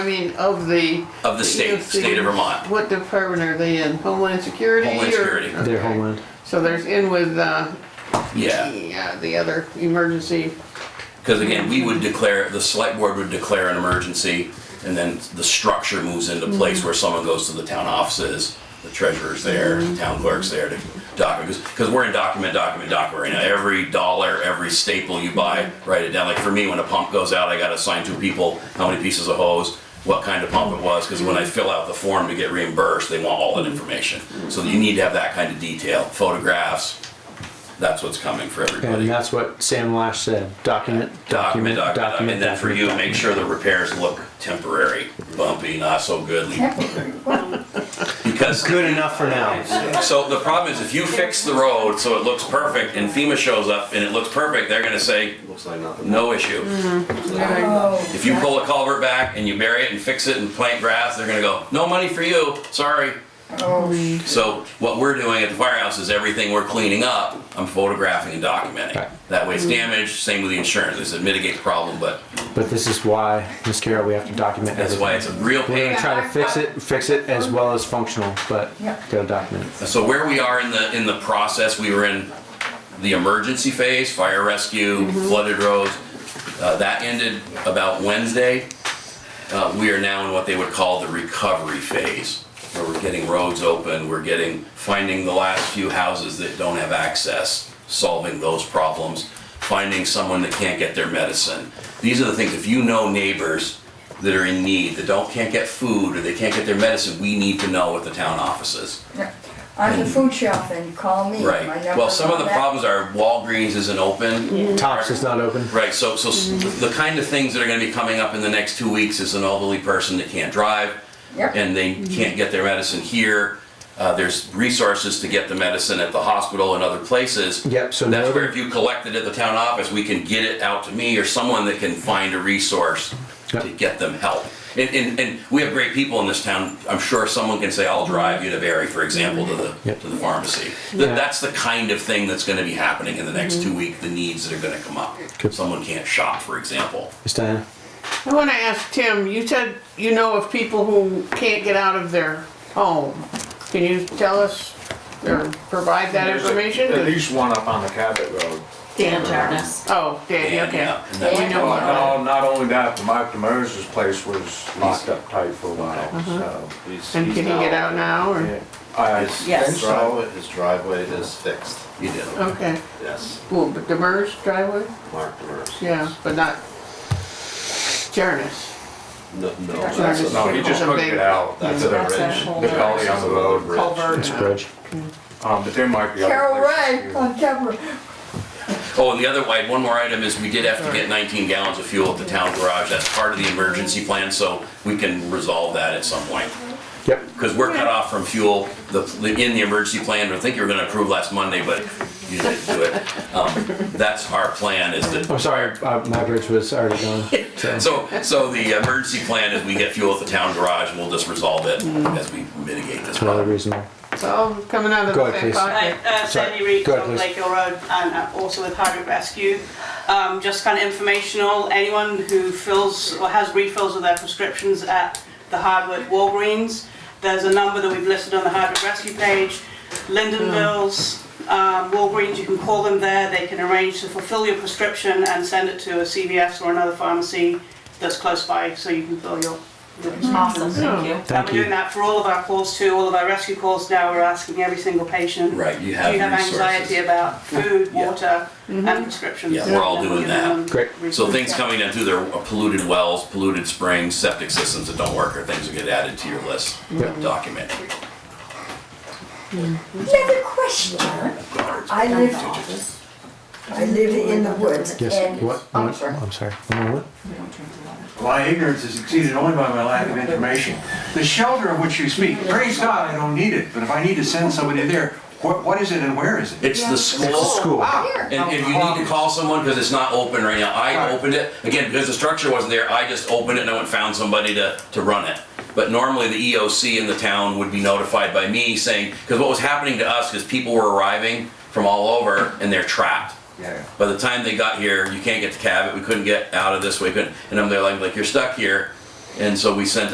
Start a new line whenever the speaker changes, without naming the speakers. I mean, of the.
Of the state-
EOC,
state of Vermont.
What department are they in? Homeland Security?
Homeland
or-
Security.
okay.
Their homeland.
So there's in with, uh,
Yeah,
yeah, the other emergency,
because again, we would declare, the select board would declare an emergency, and then the structure moves into place where someone goes to the town offices, the treasurer's there, town clerk's there to document, because we're in document, document, document right now. Every dollar, every staple you buy, write it down. Like for me, when a pump goes out, I gotta assign two people, how many pieces of hose, what kind of pump it was, because when I fill out the form to get reimbursed, they want all that information. So you need to have that kind of detail, photographs, that's what's coming for everybody.
And that's what Sam Lash said. Document,
document,
document,
document, uh,
document.
and then for you, make sure the repairs look temporary, bumpy, not so good. Because
Good enough for now.
so the problem is if you fix the road so it looks perfect and FEMA shows up and it looks perfect, they're gonna say
Looks like nothing.
no issue.
Oh,
If you pull a culvert back and you bury it and fix it and plant grass, they're gonna go no money for you. Sorry. So what we're doing at the firehouse is everything we're cleaning up, I'm photographing and documenting.
Right.
That way it's damaged. Same with the insurance. They said mitigate the problem, but
But this is why, Miss Carroll, we have to document
that's why
everything.
it's a real
We're
pain.
gonna try to fix it, fix it as well as functional, but
Yeah.
gotta document. it.
So where we are in the, in the process, we were in the emergency phase, fire rescue, flooded roads. Uh, that ended about Wednesday. Uh, we are now in what they would call the recovery phase, where we're getting roads open, we're getting, finding the last few houses that don't have access, solving those problems, finding someone that can't get their medicine. These are the things, if you know neighbors that are in need, that don't, can't get food, or they can't get their medicine, we need to know at the town offices.
On the food shelf and call me.
Right,
My
well,
number's
some of
on
the
that.
problems are Walgreens isn't open.
Tops is not open.
Right, so, so s-
Mm-hmm.
the kind of things that are gonna be coming up in the next two weeks is an elderly person that can't drive
Yep.
and they can't get their medicine here. Uh, there's resources to get the medicine at the hospital and other places.
Yep, so
That's
no-
where if you collect it at the town office, we can get it out to me or someone that can find a resource to
Yep.
get them help. And, and, and we have great people in this town. I'm sure someone can say, I'll drive you to Barry, for example, to the,
Yep.
to the pharmacy.
Yeah.
That, that's the kind of thing that's gonna be happening in the next
Mm-hmm.
two weeks, the needs that are gonna come up.
Good.
Someone can't shop, for example.
Miss Diana?
I wanna ask Tim, you said you know of people who can't get out of their home. Can you tell us or provide that
There's a-
information?
At least one up on the Cabot Road.
Dan Jarvis.
Oh, Danny,
And,
okay.
yeah, and that's-
We know about
No, not only that, but Mark Demers' place was locked up tight for a while,
Uh-huh.
so.
And can he get out now
yeah.
or?
I
Yes.
think
His
so.
driveway, his driveway is fixed,
You do.
Okay,
yes,
well, but Demers driveway?
Mark Demers.
Yeah, but not Jarnes.
No, no,
Jarvis.
that's a-
No, he just couldn't get out.
That's
to
a
That's a
ridge,
whole
The
nother-
gully on the road ridge.
Culvert.
It's Bridge.
Um, but there might be other
Carol
places
Ray
too.
on Deborah.
Oh, and the other, wide- one more item is we did have to get 19 gallons of fuel at the town garage. That's part of the emergency plan, so we can resolve that at some point.
Yep.
Because we're cut off from fuel, the, the- in the emergency plan, I think you were gonna approve last Monday, but you didn't do it. Um, That's our plan is that,
I'm sorry, uh, my bridge was already gone.
so, so the emergency plan is we get fuel at the town garage and we'll just resolve it as we mitigate this
Another
problem.
reason why.
It's all coming out of
Go
the
ahead,
same
please.
pocket.
Hi, uh,
Sorry.
Sandy Reed
Go ahead,
from
please.
Lake Hill Road and uh, also with Hardwick Rescue. Um, Just kind of informational, anyone who fills or has refills of their prescriptions at the Hardwick Walgreens, there's a number that we've listed on the Hardwick Rescue page. Lindenville's, um, Walgreens, you can call them there, they can arrange to fulfill your prescription and send it to a CVS or another pharmacy that's close by so you can fill your your prescriptions. Awesome, thank you.
Thank
And
you.
we're doing that for all of our calls too, all of our rescue calls now, we're asking every single patient.
Right, you
Do
have
you have
resources.
anxiety about food,
Yeah.
water, and prescriptions?
Yeah, we're all
And
doing
we're giving
that.
them
Great.
So things
resources.
coming in through their polluted wells, polluted springs, septic systems that don't work are things that get added to your list, document.
Another question. I live, I live in the woods and.
Yes, what?
I'm sorry.
I'm sorry. One more what?
My ignorance is exceeded only by my lack of information. The shelter of which you speak, praise God, I don't need it, but if I need to send somebody there, what, what is it and where is it?
It's the
It's a
school.
school.
And if you need to call someone, because it's not open right now, I
Right.
opened it, again, because the structure wasn't there, I just opened it and I went and found somebody to, to run it. But normally the EOC in the town would be notified by me saying, because what was happening to us is people were arriving from all over and they're trapped.
Yeah.
By the time they got here, you can't get to Cabot, we couldn't get out of this way, couldn't, and I'm there like, like, you're stuck here. And so we sent